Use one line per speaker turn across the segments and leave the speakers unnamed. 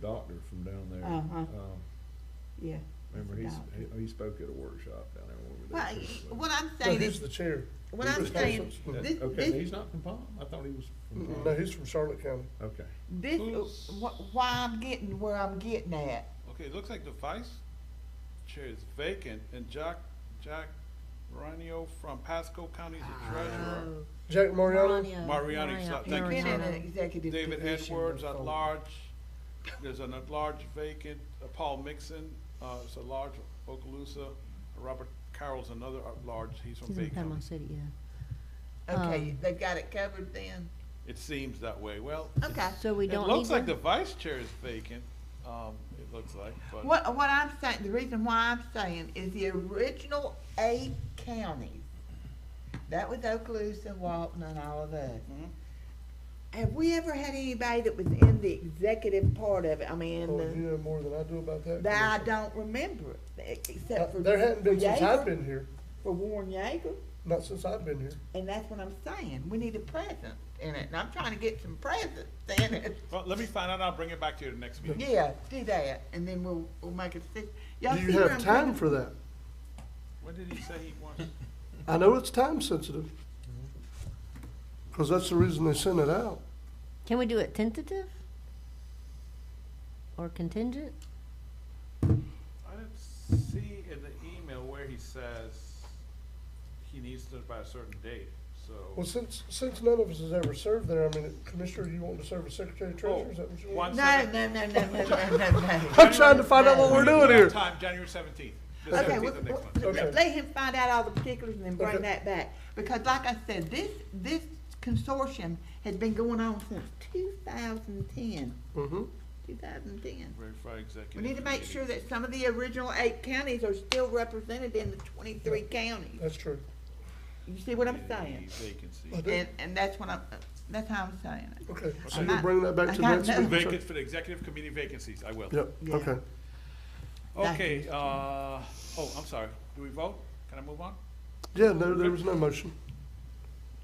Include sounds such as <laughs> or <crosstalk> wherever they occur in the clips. the doctor from down there.
Uh-huh.
Um,
yeah.
Remember,
the
he's,
doctor.
he, he spoke at a workshop down there when we were
Well,
there.
what I'm
No,
saying
he's
is,
the chair.
what I'm
He's the
saying,
council-
this-
Okay,
this-
he's not from Palm, I thought he was from
No,
Palm,
he's from Charlotte County.
okay.
this, wh- why I'm getting where I'm getting at.
Okay, it looks like the vice chair is vacant and Jack, Jack Ranio from Pasco County is
Ah.
the treasurer.
Oh.
Jack Mariano,
Mariani, so
He's
Thank you,
been in
sir.
Oh, an executive
David
position
Edwards at
before.
large, there's an at large vacant, uh, Paul Mixon, uh, is a large Okaloosa. Robert Carroll's another at large, he's from
He's
Bay
in
County.
Panama City, yeah.
Okay,
Um,
they've got it covered then?
It seems that way, well,
Okay.
So we
it
don't
looks like
need
the
one?
vice chair is vacant, um, it looks like, but.
What, what I'm saying, the reason why I'm saying is the original eight counties, that was Okaloosa, Walton, and all of us.
Mhm.
Have we ever had anybody that was in the executive part of it, I mean,
oh,
the-
you know more than I do about that.
that I
commission.
don't remember,
Uh,
except for.
There hadn't been
for
since I've
Yeager,
been here,
For Warren Yeager,
not since I've been here.
and that's what I'm saying, we need a presence in it, and I'm trying to get some presence in it.
Well, let me find out, I'll bring it back to you the next meeting.
Yeah, do that, and then we'll, we'll make a decision. Y'all
Do you
see where
have
I'm
time
coming-
for that?
When did he say he wants?
I know it's time sensitive.
Mm-hmm.
Cause that's the reason they sent it out.
Can we do it tentative? Or contingent?
I didn't see in the email where he says he needs to by a certain date,
Well,
so.
since, since none of us has ever served there, I mean, Commissioner, you want to serve as Secretary Treasurer, is that what you want?
one
No, no, no, no, no, no, no, no.
<laughs> I'm trying to find out what we're doing
We have
here.
Time, January seventeenth, the
Okay,
seventeenth of
we-
next
we-
month.
Okay.
let let him find out all the particulars and then bring
Okay.
that back. Because like I said, this, this consortium has been going on since 2010.
Mm-hmm.
2010.
Very Friday executive.
We need to make
meeting.
sure that some of the original eight counties are still represented in the 23 counties.
That's true.
You see what I'm
Any
saying?
Vacancy.
I do.
And, and that's what I'm, that's how I'm saying it.
Okay, so
I'm
you
not-
bring that back to
I
next
got
week.
Vacant for the executive committee vacancies, I will.
Yep,
Yeah.
okay.
Okay, uh, oh, I'm sorry, do we vote? Can I move on?
Yeah, no, there was no motion.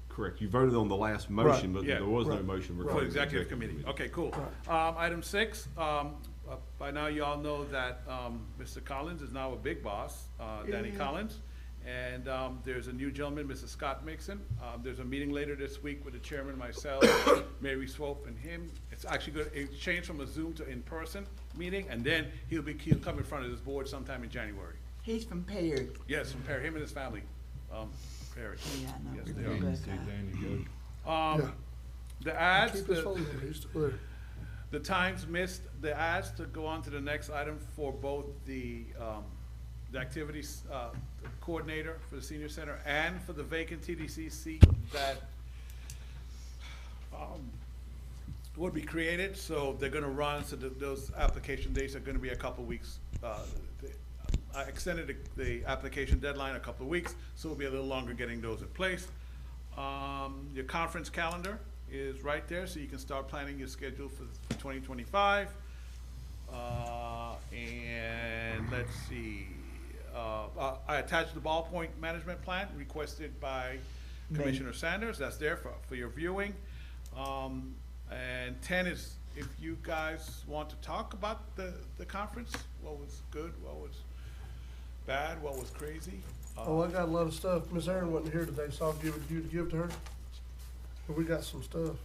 Correct, you voted on the last motion, but
Yeah.
there was no
Right.
motion
For
regarding.
the
the
executive committee, okay, cool. Um, item six, um, uh, by now you all know that, um, Mr. Collins is now a big boss, uh, Danny Collins. And, um, there's a new gentleman, Mr. Scott Mixon. Um, there's a meeting later this week with the chairman, myself, <coughs> Mary Swope and him. It's actually gonna, it changed from a Zoom to in-person meeting, and then he'll be, he'll come in front of this board sometime in January.
He's from Perry.
Yes, from Perry, him and his family, um, Perry.
Yeah, I know.
Yes,
Yeah,
they
I
are.
didn't see Danny
Yeah.
Um, the ads,
Keep his
the-
phone number, he's still there.
The times missed, the ads to go on to the next item for both the, um, the activities, uh, coordinator for the senior center and for the vacant TDC seat that, um, would be created, so they're gonna run, so th- those application dates are gonna be a couple weeks. uh, th- I extended the, the application deadline a couple of weeks, so it'll be a little longer getting those in place. Um, your conference calendar is right there, so you can start planning your schedule for twenty twenty-five. Uh, and let's see, uh, uh, I attached the ballpoint management plan requested by Commissioner Sanders, that's there for, for your viewing. Um, and ten is, if you guys want to talk about the, the conference, what was good, what was bad, what was crazy. uh,
Oh, I got a lot of stuff. Miss Erin wasn't here today, so I'll give it to you to give to her. But we got some stuff.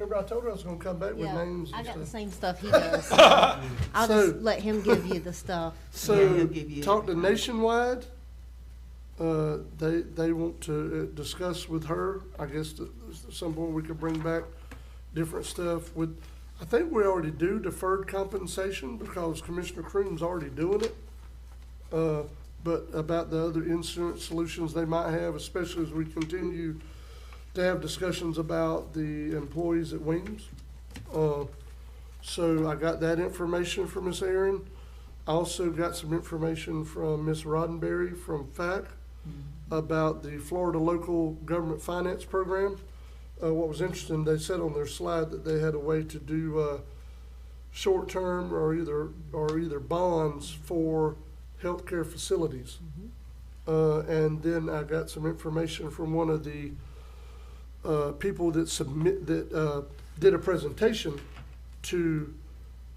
Remember, I told her I was gonna come back with
Yeah,
names
I got the
and stuff.
same
<laughs>
stuff he does. I'll
So-
just let him give you the stuff.
Yeah, he'll
So,
give you-
talk to Nationwide. Uh, they, they want to uh, discuss with her, I guess, that at some point we could bring back different stuff with, I think we already do deferred compensation because Commissioner Croom's already doing it. Uh, but about the other insurance solutions they might have, especially as we continue to have discussions about the employees at Wings. Uh, so I got that information from Miss Erin. I also got some information from Miss Roddenberry from FAC about the Florida Local Government Finance Program. Uh, what was interesting, they said on their slide that they had a way to do, uh, short-term or either, or either bonds for healthcare facilities. Uh, and then I got some information from one of the, uh, people that submit, that, uh, did a presentation to